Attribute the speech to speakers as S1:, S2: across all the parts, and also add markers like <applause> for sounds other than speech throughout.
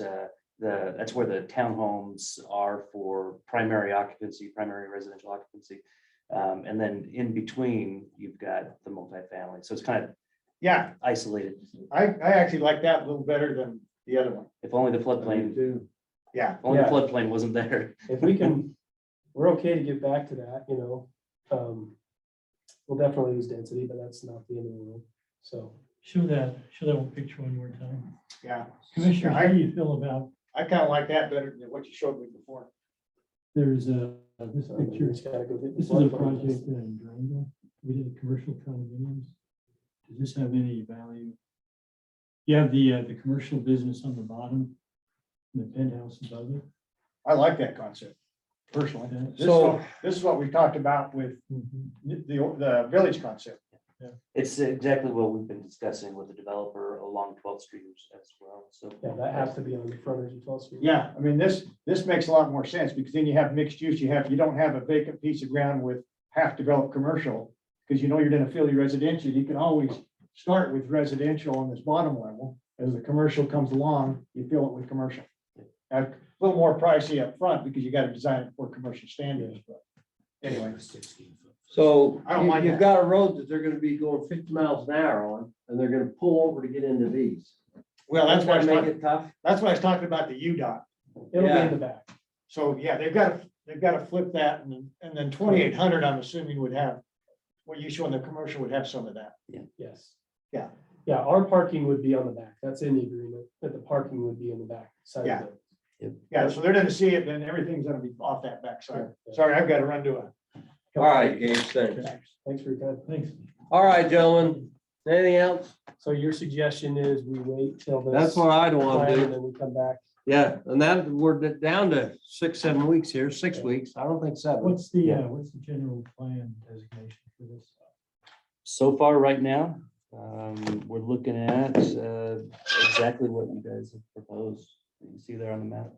S1: uh, the, that's where the townhomes are for primary occupancy, primary residential occupancy. Um, and then in between, you've got the multifamily. So it's kind of
S2: Yeah,
S1: isolated.
S2: I, I actually like that a little better than the other one.
S1: If only the floodplain,
S2: Yeah,
S1: if only the
S3: Yeah.
S1: floodplain wasn't there.
S3: If we can, we're okay to get back to that, you know, um, we'll definitely use density, but that's not the end of the world, so.
S4: Show that, show that one picture one more time.
S2: yeah.
S4: Commissioner,
S2: Yeah,
S4: how
S2: I,
S4: do you feel about,
S2: I kind of like that better than what you showed me before.
S4: there's a, this
S3: so we
S4: picture,
S3: just gotta go get
S4: this is a project in Durango, we did commercial condominiums. Does this have any value? You have the, uh, the commercial business on the bottom, and the penthouse above it.
S2: I like that concept personally. This is,
S3: So-
S2: what- this is what we talked about with
S4: mhm.
S2: the, the village concept.
S1: It's exactly what we've been discussing with the developer along 12th Street as well. So.
S3: Yeah, that has to be on the front edge of twelve feet.
S2: Yeah, I mean, this, this makes a lot more sense because then you have mixed use. You have, you don't have a vacant piece of ground with half developed commercial. Because you know you're gonna fill your residential. You can always start with residential on this bottom level. As the commercial comes along, you fill it with commercial. Now, A little more pricey up front because you gotta design it for commercial standards, but anyway.
S5: So
S2: I don't
S5: you-
S2: mind that.
S5: you've got a road that they're gonna be going fifty miles an hour on, and they're gonna pull over to get into these.
S2: Well, that's why, I was
S5: Doesn't that Make
S2: talking-
S5: it tough.
S2: that's why I was talking about the UDOT.
S3: It'll be
S5: Yeah.
S3: in the back.
S2: So, yeah, they've got, to they've got to flip that and, then- and then twenty-eight hundred, I'm assuming would have, what you show in the commercial would have some of that.
S3: Yes.
S2: Yeah.
S3: Yeah, our parking would be on the back. That's in the agreement, that the parking would be in the back side
S2: Yeah.
S3: of it.
S2: Yeah, so they're gonna see it, then everything's gonna be off that backside.
S3: Yeah.
S2: Sorry, I've got to run to a.
S5: All right, Gage, thanks.
S3: Thanks for your time.
S4: Thanks.
S5: All right, gentlemen, anything else?
S3: So your suggestion is we wait till this.
S5: That's what I'd
S3: plan
S5: want to
S3: And
S5: do.
S3: then we come back.
S5: Yeah, and that, we're d- down to six, seven weeks here, six weeks. I don't think seven.
S4: What's the, uh, what's the general plan designation for this?
S1: So far, right now, um, we're looking at, uh, exactly what you guys have proposed. You can see there on the map.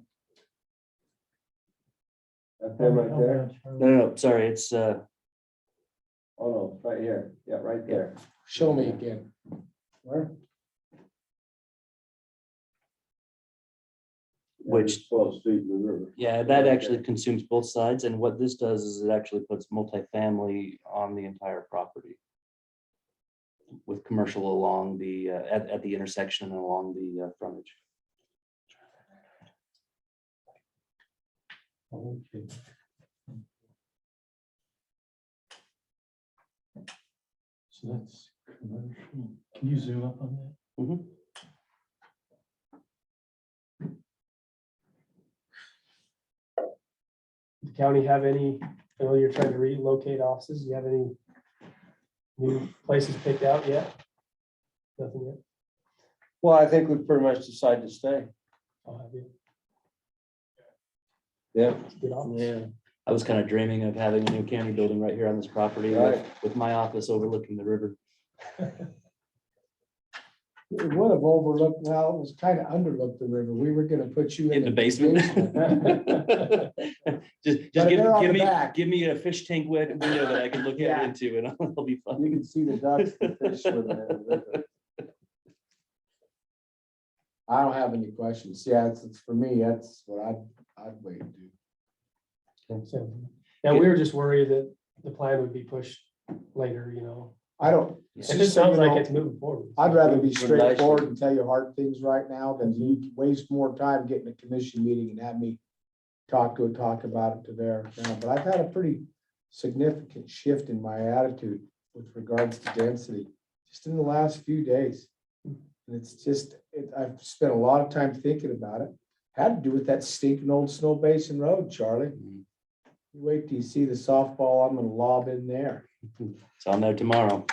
S5: That
S4: How much? How-
S1: No, no, no, sorry, it's, uh,
S5: Oh, no, right here. Yeah, right there.
S6: Show me again.
S5: Where?
S1: Which-
S5: Twelve feet in the river.
S1: yeah, that actually consumes both sides, and what this does is it actually puts multifamily on the entire property. With commercial along the, uh, at, at the intersection and along the uh, frontage.
S4: Okay. So that's commercial. Can you zoom up on that?
S1: Mhm.
S3: The county have any, I know you're trying to relocate offices. Do you have any new places picked out yet? Nothing yet.
S5: Well, I think we pretty much decided to stay.
S3: I'll have you
S5: Yeah.
S3: get on.
S5: Yeah.
S1: I was kind of dreaming of having a new county building right here on this property with, with my office overlooking
S6: <laughs>
S1: the river.
S6: We would have overlooked, well, it was kind of underlooked the river. We were gonna put you
S1: In
S6: <laughs>
S1: the basement. Just, just
S6: But
S1: give,
S6: they're on
S1: give
S6: the
S1: me,
S6: back.
S1: give me a fish tank win- window that I can look out
S6: Yeah.
S1: into and <laughs> I'll be
S5: You
S1: fine.
S5: can see the ducks and fish swimming in the river.
S6: I don't have any questions. Yeah, it's, it's for me, that's what I'd, I'd wait and do.
S3: So, Yeah, we were just worried that the plan would be pushed later, you know.
S6: I don't,
S3: It
S6: It's
S3: just
S6: just so you
S3: sounds like
S6: know-
S3: it's moving forward.
S6: I'd rather be
S5: Nice.
S6: straightforward and tell you hard things right now than you waste more time getting a commission meeting and have me talk, go talk about it to there. now. But I've had a pretty significant shift in my attitude with regards to density, just in the last few days. And it's just, it, I've spent a lot of time thinking about it. Had to do with that stinking old snow basin road, Charlie.
S1: Mhm.
S6: You Wait till you see the softball I'm gonna lob in there.
S1: So I'll know tomorrow.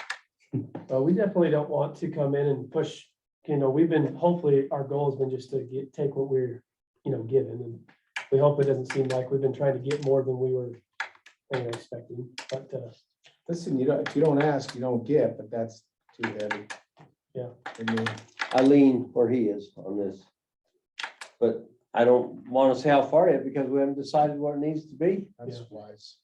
S3: But Uh, we definitely don't want to come in and push, you know, we've been, hopefully, our goal has been just to get, take what we're, you know, given, and we hope it doesn't seem like we've been trying to get more than we were you know, expecting, but, uh,
S6: Listen, you don't, if you don't ask, you don't get, but that's too heavy.
S3: Yeah.
S6: I mean,
S5: I lean where he is on this. But I don't want to say how far yet because we haven't decided what it needs to be.
S6: that's
S3: Yeah.
S6: wise.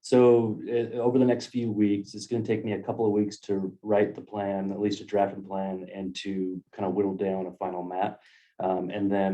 S1: So uh, over the next few weeks, it's going to take me a couple of weeks to write the plan, at least a drafting plan, and to kind of whittle down a final map. Um, and then